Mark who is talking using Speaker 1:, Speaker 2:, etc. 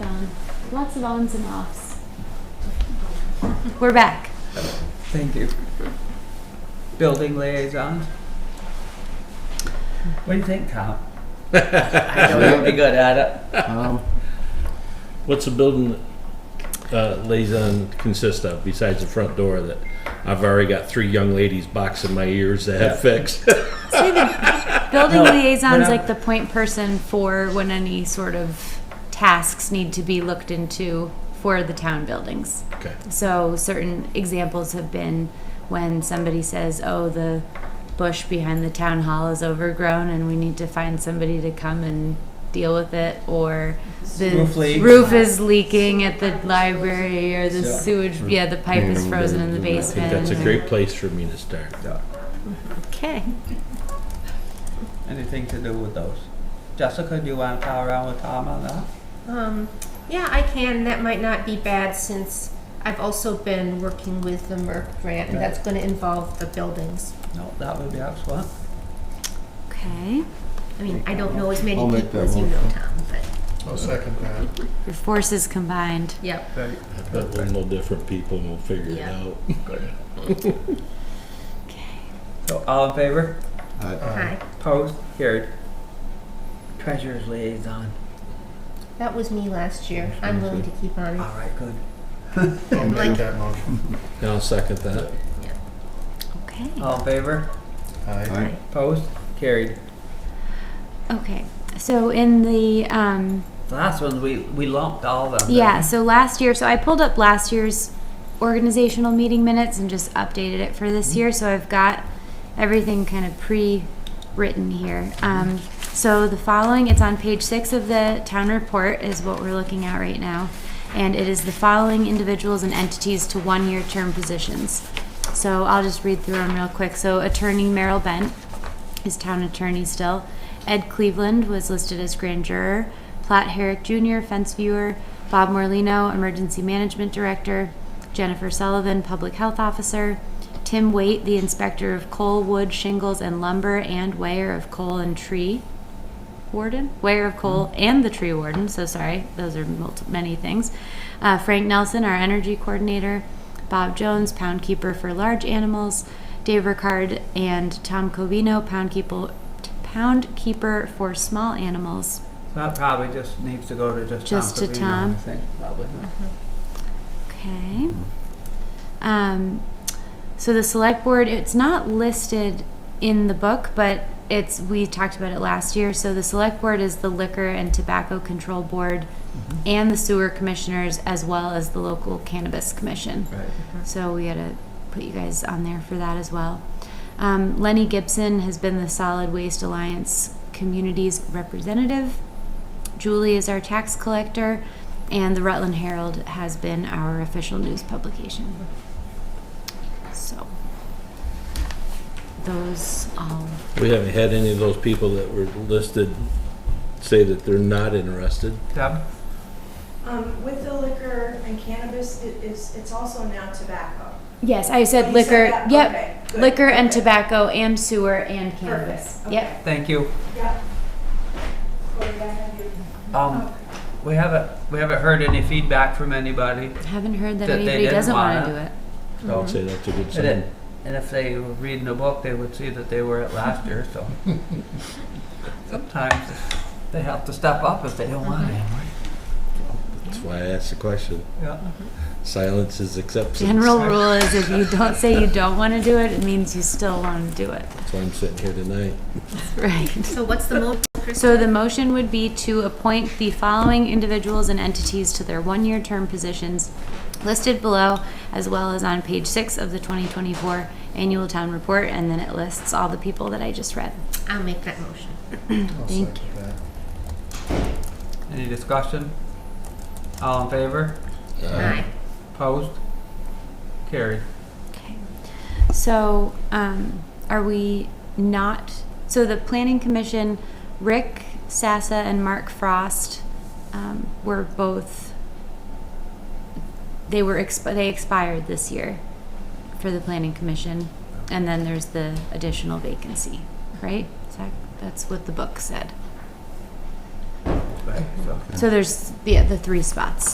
Speaker 1: Um, lots of ons and offs. We're back.
Speaker 2: Thank you. Building liaison. What do you think, Tom? I know you're pretty good at
Speaker 3: Um,
Speaker 4: What's the building uh, liaison consist of besides the front door that I've already got three young ladies boxing my ears to have fixed?
Speaker 1: Say the building
Speaker 2: No,
Speaker 1: liaison's
Speaker 2: but I-
Speaker 1: like the point person for when any sort of tasks need to be looked into for the town buildings.
Speaker 4: Okay.
Speaker 1: So certain examples have been when somebody says, "Oh, the bush behind the town hall is overgrown, and we need to find somebody to come and deal with it," or the
Speaker 2: Roof leak.
Speaker 1: roof is leaking at the library, or the
Speaker 2: Yeah.
Speaker 1: sewage, yeah, the pipe is frozen in the
Speaker 4: Mm. I
Speaker 1: basement.
Speaker 4: think that's a great place for me to start.
Speaker 2: it.
Speaker 1: Okay.
Speaker 2: Anything to do with those? Jessica, do you want to pal around with Tom on that?
Speaker 5: Um, yeah, I can. That might not be bad since I've also been working with the Merck grant, and that's going to involve the buildings.
Speaker 2: No, that would be excellent.
Speaker 1: Okay.
Speaker 5: I mean, I don't know as many
Speaker 3: I'll make
Speaker 5: people
Speaker 3: that
Speaker 5: as you know,
Speaker 3: motion.
Speaker 5: Tom, but
Speaker 6: I'll second that.
Speaker 1: Your forces combined.
Speaker 5: yep.
Speaker 4: But we'll know different people and we'll figure it
Speaker 5: Yeah.
Speaker 4: out.
Speaker 2: So all in favor?
Speaker 6: Uh,
Speaker 3: I-
Speaker 5: Hi.
Speaker 2: Opposed? Carried. Treasurer's liaison.
Speaker 5: That was me last year. I'm willing to keep on
Speaker 2: All
Speaker 5: it.
Speaker 2: right, good.
Speaker 6: I'll make that motion.
Speaker 4: And I'll second that.
Speaker 1: Okay.
Speaker 2: All in favor?
Speaker 6: Aye.
Speaker 3: I-
Speaker 2: Opposed? Carried.
Speaker 1: Okay. So in the um,
Speaker 2: The last one, we, we lumped all of them. didn't
Speaker 1: yeah,
Speaker 2: we?
Speaker 1: so last year, so I pulled up last year's organizational meeting minutes and just updated it for
Speaker 2: Mm-hmm.
Speaker 1: this year. So I've got everything kind of pre-written here.
Speaker 2: Mm-hmm.
Speaker 1: Um, so the following, it's on page six of the town report, is what we're looking at right now, and it is the following individuals and entities to one-year term positions. So I'll just read through them real quick. So attorney Merrill Bent is town attorney still. Ed Cleveland was listed as grand juror. Platt Herrick Jr., fence viewer. Bob Morlino, emergency management director. Jennifer Sullivan, public health officer. Tim Waite, the inspector of coal, wood, shingles, and lumber, and weigher of coal and tree warden, weigher of coal, and the tree warden. So sorry, those are multi- many things. Uh, Frank Nelson, our energy coordinator, Bob Jones, pound keeper for large animals, Dave Ricard and Tom Covino, pound keeper, pound keeper for small animals.
Speaker 2: That probably just needs to go to just Tom.
Speaker 1: Just to
Speaker 2: Savino,
Speaker 1: Tom.
Speaker 2: I think, probably.
Speaker 1: Okay. Um, so the select board, it's not listed in the book, but it's, we talked about it last year. So the select board is the liquor and tobacco control board and the sewer commissioners as well as the local cannabis commission.
Speaker 2: Right.
Speaker 1: So we gotta put you guys on there for that as well. Um, Lenny Gibson has been the Solid Waste Alliance Communities representative. Julie is our tax collector, and the Rutland Herald has been our official news publication. So, those all.
Speaker 4: We haven't had any of those people that were listed say that they're not interested.
Speaker 2: Deb?
Speaker 7: Um, with the liquor and cannabis, it is, it's also now tobacco.
Speaker 1: Yes, I said
Speaker 7: Oh, You
Speaker 1: liquor.
Speaker 7: that?
Speaker 1: Yep,
Speaker 7: Okay, good,
Speaker 1: liquor and
Speaker 7: okay,
Speaker 1: tobacco, and sewer and
Speaker 7: Perfect.
Speaker 1: cannabis.
Speaker 7: okay.
Speaker 1: Yep.
Speaker 2: Thank you.
Speaker 7: Yep. Corey, I have your-
Speaker 2: Um, we haven't, we haven't heard any feedback from anybody,
Speaker 1: Haven't heard that
Speaker 2: That they
Speaker 1: anybody
Speaker 2: didn't
Speaker 1: doesn't want to
Speaker 2: wanna-
Speaker 1: do it.
Speaker 2: so.
Speaker 4: I'd say that's a good
Speaker 2: They
Speaker 4: sign.
Speaker 2: didn't. And if they were reading a book, they would see that they were at last year, so. Sometimes they have to step up if they don't want it.
Speaker 4: That's why I asked the question.
Speaker 2: Yeah.
Speaker 4: Silence is acceptance.
Speaker 1: General rule is if you don't say you don't want to do it, it means you still want to do it.
Speaker 4: That's why I'm sitting here tonight.
Speaker 1: Right.
Speaker 5: So what's the move?
Speaker 1: So the motion would be to appoint the following individuals and entities to their one-year term positions listed below, as well as on page six of the 2024 annual town report, and then it lists all the people that I just read.
Speaker 5: I'll make that motion.
Speaker 6: I'll
Speaker 1: Thank
Speaker 6: second that.
Speaker 2: Any discussion? All in favor?
Speaker 5: Aye.
Speaker 2: Opposed? Carried.
Speaker 1: Okay. So, um, are we not, so the planning commission, Rick Sassa and Mark Frost, um, were both, they were, exp- they expired this year for the planning commission. And then there's the additional vacancy, right? Is that- That's what the book said.
Speaker 2: Right. so.
Speaker 1: So there's, yeah, the three spots.